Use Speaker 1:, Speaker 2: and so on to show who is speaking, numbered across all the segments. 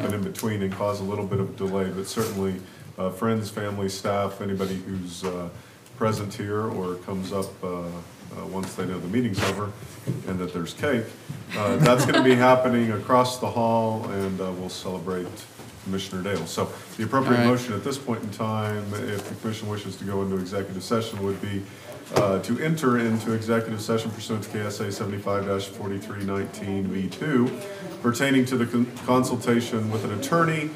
Speaker 1: happen in between and cause a little bit of delay, but certainly uh, friends, family, staff, anybody who's uh, present here or comes up uh, uh, once they know the meeting's over and that there's cake, uh, that's going to be happening across the hall, and uh, we'll celebrate Commissioner Dale. So the appropriate
Speaker 2: All right.
Speaker 1: motion motion at this point in time, if the commission wishes to go into executive session, would be uh, to enter into executive session pursuant to KSA seventy-five forty-three nineteen V two pertaining to the con- consultation with an attorney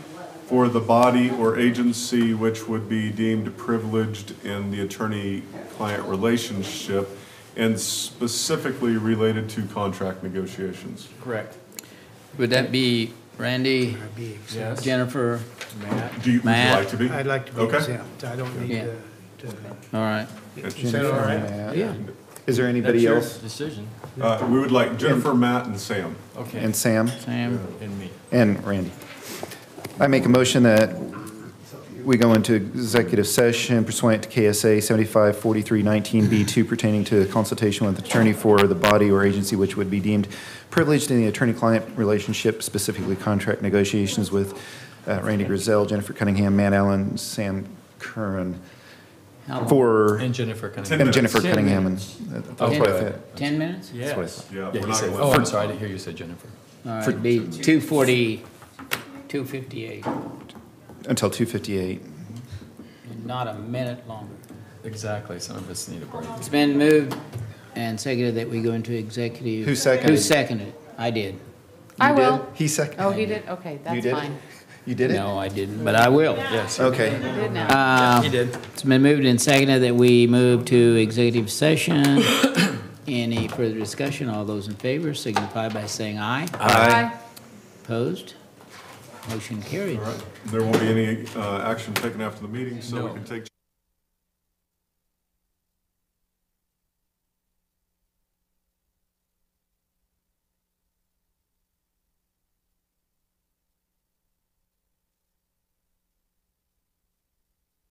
Speaker 1: for the body or agency which would be deemed privileged in the attorney-client relationship and specifically related to contract negotiations.
Speaker 3: Correct.
Speaker 2: Would that be Randy,
Speaker 3: Yes.
Speaker 2: Jennifer?
Speaker 1: Do you, would you
Speaker 2: Matt?
Speaker 1: like to be?
Speaker 4: I'd like to be
Speaker 1: Okay.
Speaker 4: exempt. I don't need
Speaker 2: Yeah.
Speaker 4: to, to-
Speaker 2: All right.
Speaker 4: is that all right?
Speaker 3: Yeah.
Speaker 5: Is there
Speaker 3: That's
Speaker 5: anybody
Speaker 3: your
Speaker 5: else?
Speaker 3: decision.
Speaker 1: Uh, We would like Jennifer, Matt, and Sam.
Speaker 3: Okay.
Speaker 5: And Sam
Speaker 2: Sam,
Speaker 3: And me.
Speaker 5: and Randy. I make a motion that we go into executive session pursuant to KSA 754319B2 pertaining to consultation with attorney for the body or agency which would be deemed privileged in the attorney-client relationship, specifically contract negotiations with uh, Randy Grizel, Jennifer Cunningham, Matt Allen, Sam Curran,
Speaker 2: how long?
Speaker 5: for,
Speaker 3: And Jennifer Cunningham.
Speaker 1: Ten-
Speaker 5: and Jennifer
Speaker 3: Ten
Speaker 5: Cunningham. and
Speaker 3: minutes.
Speaker 5: That's what I thought.
Speaker 2: Ten minutes?
Speaker 5: That's what I
Speaker 3: Yes.
Speaker 5: thought.
Speaker 1: Yeah,
Speaker 3: Yeah,
Speaker 1: we're
Speaker 3: he
Speaker 1: not
Speaker 3: said-
Speaker 1: going
Speaker 3: oh, I'm sorry, I didn't hear you say Jennifer.
Speaker 2: All right, it'd be two forty, two fifty-eight,
Speaker 5: Until 2:58.
Speaker 2: not a minute longer.
Speaker 3: Exactly, some of us need a break.
Speaker 2: It's been moved and seconded that we go into executive.
Speaker 5: Who seconded?
Speaker 2: Who seconded? I did.
Speaker 6: I
Speaker 5: You did?
Speaker 6: will.
Speaker 5: He seconded.
Speaker 6: Oh, he did? Okay,
Speaker 5: You
Speaker 6: that's
Speaker 5: did it?
Speaker 6: fine.
Speaker 5: You did it?
Speaker 2: No, I didn't, but I will.
Speaker 3: Yes.
Speaker 5: Okay.
Speaker 6: You did now.
Speaker 2: Uh,
Speaker 5: Um,
Speaker 3: He did.
Speaker 2: It's been moved and seconded that we move to executive session. Any further discussion? All those in favor signify by saying aye.
Speaker 6: Bye.
Speaker 2: Opposed? Motion carried.
Speaker 1: All right. There won't be any uh, action taken after the meeting, so we
Speaker 3: No.
Speaker 1: can take